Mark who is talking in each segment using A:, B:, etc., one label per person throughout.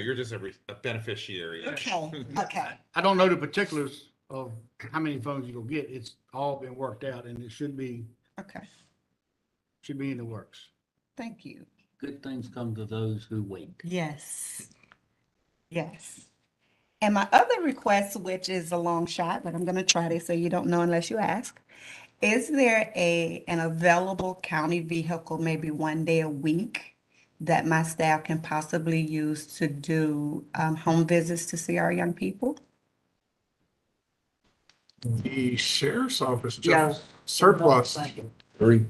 A: You're just a re- a beneficiary.
B: Okay, okay,
C: I don't know the particulars of how many phones you're gonna get. It's all been worked out and it should be,
B: okay.
C: should be in the works.
B: Thank you.
D: Good things come to those who wait.
B: Yes. Yes. And my other request, which is a long shot, but I'm gonna try this so you don't know unless you ask. Is there a, an available county vehicle maybe one day a week that my staff can possibly use to do, um, home visits to see our young people?
E: The sheriff's office
D: Yeah.
E: just surplus
F: Three.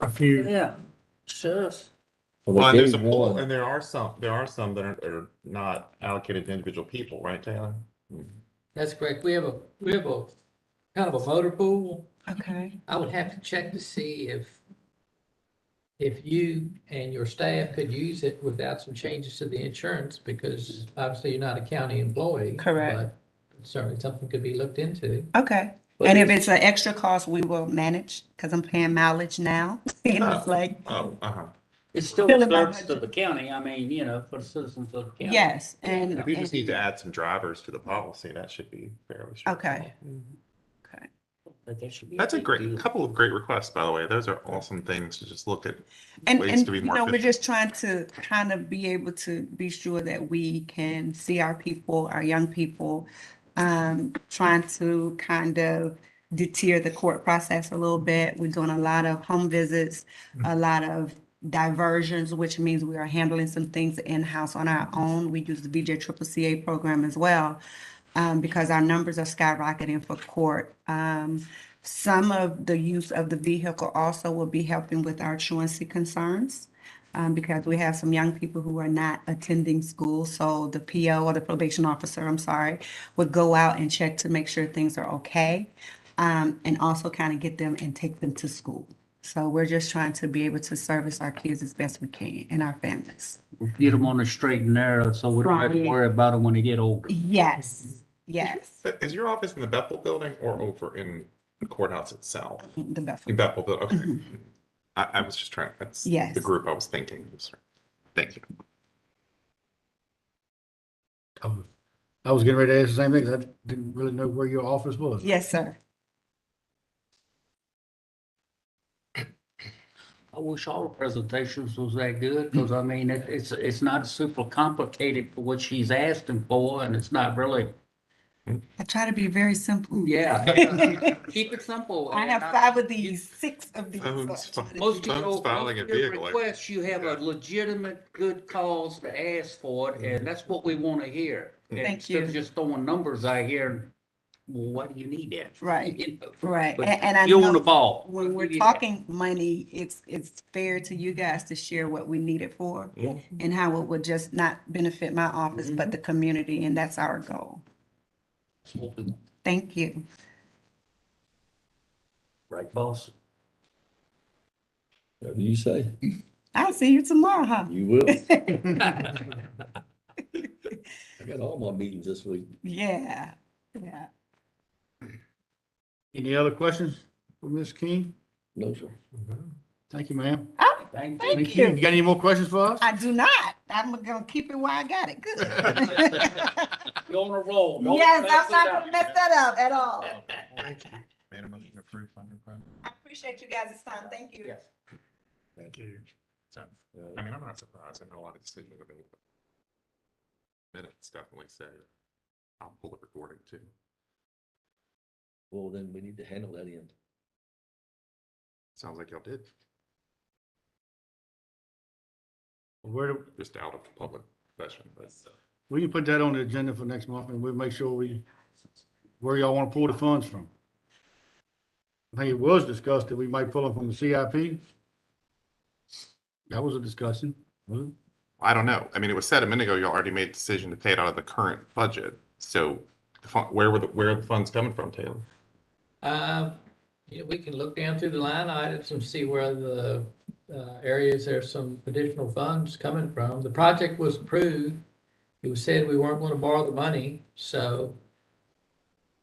E: a few,
D: Yeah, sheriff.
A: Well, there's a pool, and there are some, there are some that are, are not allocated to individual people, right, Taylor?
G: That's correct. We have a, we have a kind of a motor pool.
B: Okay.
G: I would have to check to see if if you and your staff could use it without some changes to the insurance, because obviously you're not a county employee.
B: Correct.
G: but Certainly something could be looked into.
B: Okay.
G: But
B: And if it's an extra cost, we will manage, cause I'm paying mileage now. And it's like,
A: Oh, uh-huh.
D: It's still
B: Still
D: a
B: in my
D: service to the county, I mean, you know, for the citizens of the county.
B: yes, and.
A: If you just
B: and-
A: need to add some drivers to the policy, that should be fairly. straightforward.
B: Okay. Okay.
D: But there should be
A: That's a
D: big
A: great,
D: deal.
A: couple of great requests, by the way. Those are awesome things to just look at.
B: And,
A: ways
B: and,
A: to be
B: you
A: more
B: know, we're
A: efficient.
B: just trying to kind of be able to be sure that we can see our people, our young people. Um, trying to kind of deter the court process a little bit. We're doing a lot of home visits, a lot of diversions, which means we are handling some things in-house on our own. We use the VJ Triple CA program as well, um, because our numbers are skyrocketing for court. Um, some of the use of the vehicle also will be helping with our truancy concerns, um, because we have some young people who are not attending school. So the PO or the probation officer, I'm sorry, would go out and check to make sure things are okay. Um, and also kind of get them and take them to school. So we're just trying to be able to service our kids as best we can and our families.
D: Get them on the straight and narrow, so we don't have to
B: Right.
D: worry about them when they get older.
B: Yes, yes,
A: Uh, Is your office in the Bethel building or over in the courthouse itself?
B: the
A: In
B: Bethel.
A: Bethel, building, okay. I, I was just trying, that's
B: Yes.
A: the group I was thinking. Thank you.
C: Um, I was getting ready to ask the same thing. 'cause I didn't really know where your office was.
B: Yes, sir.
D: I wish all the presentations was that good, because I mean, it, it's, it's not super complicated for what she's asking for, and it's not really,
B: I try to be very simple.
D: yeah. Keep it simple.
B: I have
D: and
B: five of these, six of these. so I
A: Phones,
B: try to be
D: Most
A: Phone's
D: of your, most
A: filing a
D: of your
A: vehicle.
D: requests, you have
A: Yeah.
D: a legitimate good cause to ask for it,
A: Mm-hmm.
D: and that's what we want to hear. And
B: Thank
D: Instead of
B: you.
D: just throwing numbers out here, and, well, what do you need that? for?"
B: Right.
D: You know,
B: Right,
D: but
B: and, and I
D: You're on the
B: know
D: ball.
B: when we're
D: Yeah.
B: talking money, it's, it's fair to you guys to share what we need it for
A: Yeah.
B: and how it would just not benefit my office, but the community, and that's our goal. Thank you.
D: Right, boss?
F: Whatever you say,
B: I'll see you tomorrow, huh?
F: you will. I got all my meetings this week.
B: Yeah, yeah.
C: Any other questions for Ms. King?
F: No, sir.
C: Thank you, ma'am.
B: Oh,
D: Thank you.
B: thank
C: You
B: you.
C: got any more questions for us?
B: I do not. I'm gonna keep it where I got it. Good. Yes,
D: You're on a roll. Don't mess
B: I'm
D: it
B: not
D: up.
B: gonna mess that up at all.
A: Thank you. Made a motion to approve funding plan.
B: I appreciate you guys' time. Thank you.
D: Yes.
A: Thank you. So,
F: Uh,
A: I mean, I'm not surprised. I know a lot of decisions have been. Minutes definitely say, I'll pull the recording too.
F: Well, then we need to handle that in.
A: Sounds like y'all did,
C: Where, do-
A: just out of public session, but.
C: we can put that on the agenda for next month and we'll make sure we, where y'all want to pull the funds from. I think it was discussed that we might pull them from the CIP. That was a discussion. wasn't it?
A: I don't know. I mean, it was said a minute ago, you already made a decision to pay it out of the current budget. So the fun, where were the, where are the funds coming from, Taylor?
G: Uh, you know, we can look down through the line items and see where the uh, areas there's some additional funds coming from. The project was approved. It was said we weren't going to borrow the money, so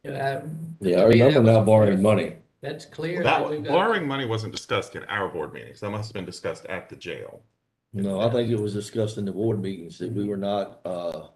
G: you know, I-
F: Yeah, I remember now borrowing money.
G: that's clear.
A: That,
G: we've got-
A: borrowing money wasn't discussed in our board meetings. That must have been discussed at the jail.
F: No, I think it was discussed in the board meetings that we were not, uh,